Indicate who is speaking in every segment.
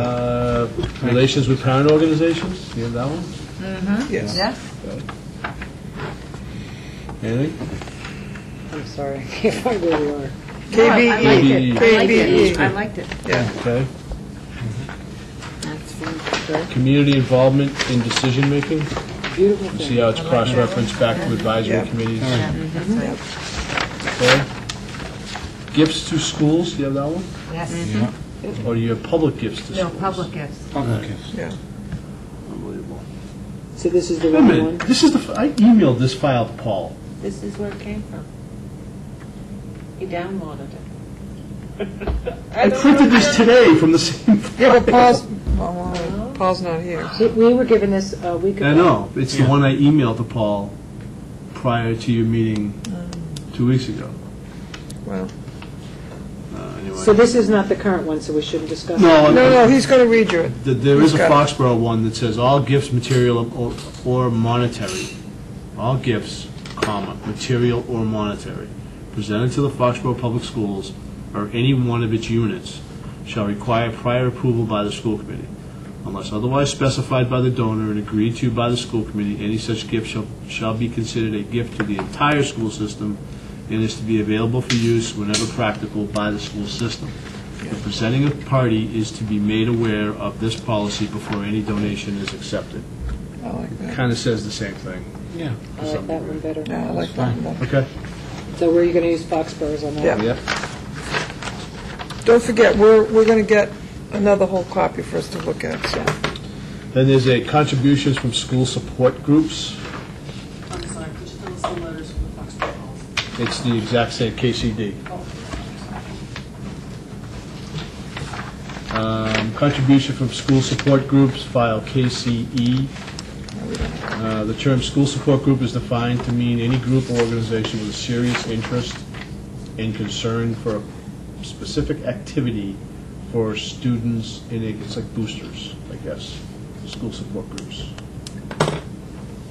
Speaker 1: Uh, Relations with parent organizations, you have that one?
Speaker 2: Yes.
Speaker 3: Yeah?
Speaker 1: Anything?
Speaker 4: I'm sorry, I can't find where we are.
Speaker 3: I liked it. I liked it.
Speaker 4: KBE.
Speaker 3: I liked it.
Speaker 2: Yeah.
Speaker 1: Okay.
Speaker 3: That's fine.
Speaker 1: Community involvement in decision-making,
Speaker 4: Beautiful
Speaker 1: you
Speaker 4: thing.
Speaker 1: see how it's cross-referenced back to advisory
Speaker 2: Yeah.
Speaker 1: committees.
Speaker 2: All right.
Speaker 3: Yeah, that's right.
Speaker 1: Okay. Gifts to schools, do you have that one?
Speaker 3: Yes.
Speaker 5: Yeah.
Speaker 1: Or do you have public gifts to
Speaker 3: No,
Speaker 1: schools?
Speaker 3: public gifts.
Speaker 5: Public gifts.
Speaker 2: Yeah.
Speaker 1: Unbelievable.
Speaker 4: So this is the
Speaker 1: Wait a
Speaker 4: right
Speaker 1: minute,
Speaker 4: one?
Speaker 1: this is the, f- I emailed this file to Paul.
Speaker 6: This is where it came from. You downloaded it.
Speaker 1: I printed this today from the same
Speaker 2: Yeah, but
Speaker 1: file.
Speaker 2: Paul's, well, Paul's not here.
Speaker 4: We- We were given this a week ago.
Speaker 1: I know, it's the one I emailed to Paul prior to your meeting
Speaker 6: Um.
Speaker 1: two weeks ago.
Speaker 2: Well,
Speaker 1: Uh, anyway.
Speaker 4: So this is not the current one, so we shouldn't discuss it?
Speaker 1: No,
Speaker 2: no, no, he's going to read you it.
Speaker 1: Th- There is a
Speaker 2: He's got it.
Speaker 1: Foxborough one that says, "All gifts, material or- or monetary, all gifts, comma, material or monetary, presented to the Foxborough Public Schools or any one of its units shall require prior approval by the school committee. Unless otherwise specified by the donor and agreed to by the school committee, any such gift shall, shall be considered a gift to the entire school system and is to be available for use whenever practical by the school system. The presenting of party is to be made aware of this policy before any donation is accepted.
Speaker 2: I like that.
Speaker 1: Kind of says the same thing.
Speaker 5: Yeah.
Speaker 4: I like that one better.
Speaker 2: Yeah, I like that. one.
Speaker 1: Okay.
Speaker 4: So where are you going to use Foxboroughs on that?
Speaker 2: Yeah.
Speaker 1: Yep.
Speaker 2: Don't forget, we're, we're going to get another whole copy for us to look at, so.
Speaker 1: Then there's a contributions from school support groups.
Speaker 7: I'm sorry, could you tell us the letters from the Foxborough policy?
Speaker 1: It's the exact same KCD.
Speaker 7: Oh,
Speaker 1: Um, Contribution from school support groups, file KCE. Uh, The term "school support group" is defined to mean any group or organization with a serious interest and concern for a specific activity for students, and it's like boosters, I guess, school support groups.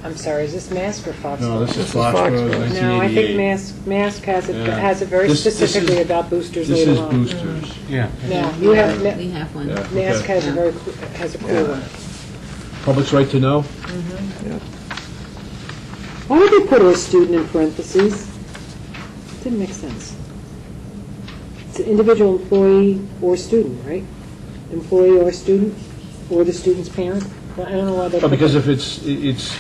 Speaker 4: I'm sorry, is this Mask or Foxborough?
Speaker 1: No, this is
Speaker 2: This is
Speaker 1: Foxborough,
Speaker 2: Foxborough.
Speaker 4: No, I
Speaker 1: 1988.
Speaker 4: think Mask, Mask has it,
Speaker 1: Yeah.
Speaker 4: has it very
Speaker 1: This- this is-
Speaker 4: specifically about boosters
Speaker 1: This
Speaker 4: later
Speaker 1: is
Speaker 4: on.
Speaker 1: boosters.
Speaker 5: Yeah.
Speaker 4: No, you have, Ma-
Speaker 3: We have one.
Speaker 1: Yeah, okay.
Speaker 4: Mask has a very, cl- has a clear one.
Speaker 1: Public's right to know?
Speaker 4: Why would they put a student in parentheses? Didn't make sense. It's an individual employee or student, right? Employee or student, or the student's parent? Well, I don't know why they.
Speaker 1: Well,
Speaker 4: put
Speaker 1: because
Speaker 4: that.
Speaker 1: if it's, it- it's,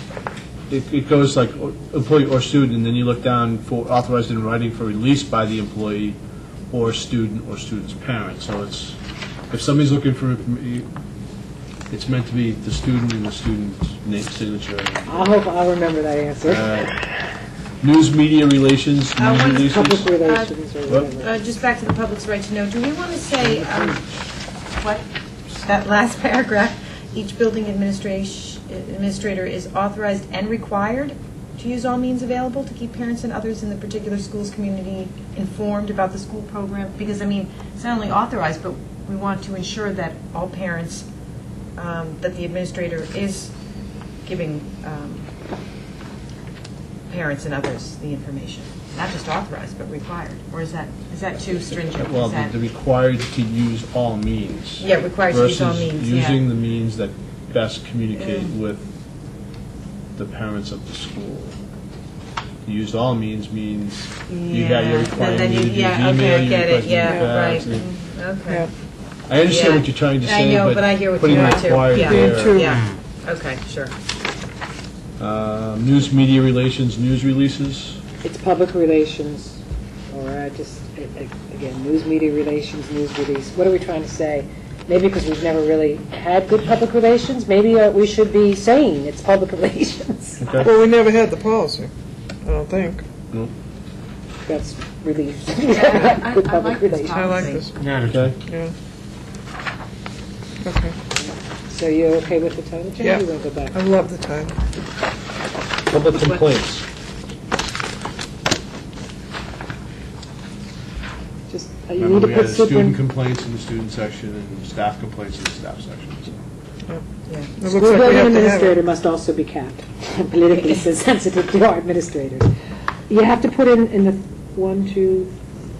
Speaker 1: it it goes like o- employee or student, and then you look down for authorized in writing for release by the employee or student or student's parent. So it's, if somebody's looking for, inform- it's meant to be the student and the student's name, signature.
Speaker 4: I hope I'll remember that
Speaker 1: Uh,
Speaker 4: answer.
Speaker 1: News media relations,
Speaker 6: Uh,
Speaker 1: news
Speaker 6: when's
Speaker 4: Public
Speaker 1: releases.
Speaker 4: relations or
Speaker 1: What?
Speaker 4: whatever.
Speaker 6: Uh, Just back to the public's right to know, do we want to say, um, what, that last paragraph, each building administration- administrator is authorized and required to use all means available to keep parents and others in the particular school's community informed about the school program? Because, I mean, it's not only authorized, but we want to ensure that all parents, um, that the administrator is giving um, parents and others the information, not just authorized, but required, or is that, is that too stringent?
Speaker 1: Well,
Speaker 6: Is
Speaker 1: the
Speaker 6: that-
Speaker 1: the required to use all means.
Speaker 6: Yeah, required to use all means, yeah. Mm.
Speaker 1: Versus using the means that best communicate with the parents of the school. To Use all means means you got your
Speaker 6: Yeah, and
Speaker 1: requirement,
Speaker 6: then
Speaker 1: you
Speaker 6: you-
Speaker 1: did your
Speaker 6: yeah, okay,
Speaker 1: email,
Speaker 6: I
Speaker 1: you uh,
Speaker 6: get it,
Speaker 1: requested your
Speaker 6: yeah,
Speaker 1: fax,
Speaker 6: right, Mm,
Speaker 1: and-
Speaker 6: Okay,
Speaker 1: I understand
Speaker 6: Yeah.
Speaker 1: what you're trying to
Speaker 6: I
Speaker 1: say,
Speaker 6: know, but I hear
Speaker 1: but
Speaker 6: what
Speaker 1: putting
Speaker 6: you're trying to-
Speaker 1: required
Speaker 6: yeah.
Speaker 1: there.
Speaker 2: Me too.
Speaker 6: yeah, okay, sure.
Speaker 1: Um, News media relations, news releases,
Speaker 4: It's public relations, or I just, a- a- again, news media relations, news release. What are we trying to say? Maybe because we've never really had good public relations, maybe uh, we should be saying it's public relations.
Speaker 1: okay?
Speaker 2: Well, we never had the policy, I don't think.
Speaker 4: That's relief.
Speaker 3: I- I
Speaker 4: Good public
Speaker 3: like this
Speaker 4: relations.
Speaker 2: I like this,
Speaker 1: Okay.
Speaker 2: yeah. Okay,
Speaker 4: So you're okay with the title change?
Speaker 2: Yeah. Um,
Speaker 4: You want to go
Speaker 2: I
Speaker 4: back?
Speaker 2: love the title.
Speaker 1: Public complaints.
Speaker 4: Just, uh, you need
Speaker 1: Remember,
Speaker 4: to
Speaker 1: we had
Speaker 4: put
Speaker 1: student
Speaker 4: super,
Speaker 1: complaints in the student section and staff complaints in the staff section, so.
Speaker 2: It looks
Speaker 4: school
Speaker 2: like we
Speaker 4: building
Speaker 2: have to have
Speaker 4: administrator
Speaker 2: it.
Speaker 4: must also be capped. Politically sensitive to our administrators. You have to put in, in the one, two,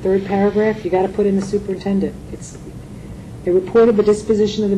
Speaker 4: third paragraph, you got to put in the superintendent. It's, they reported the disposition of the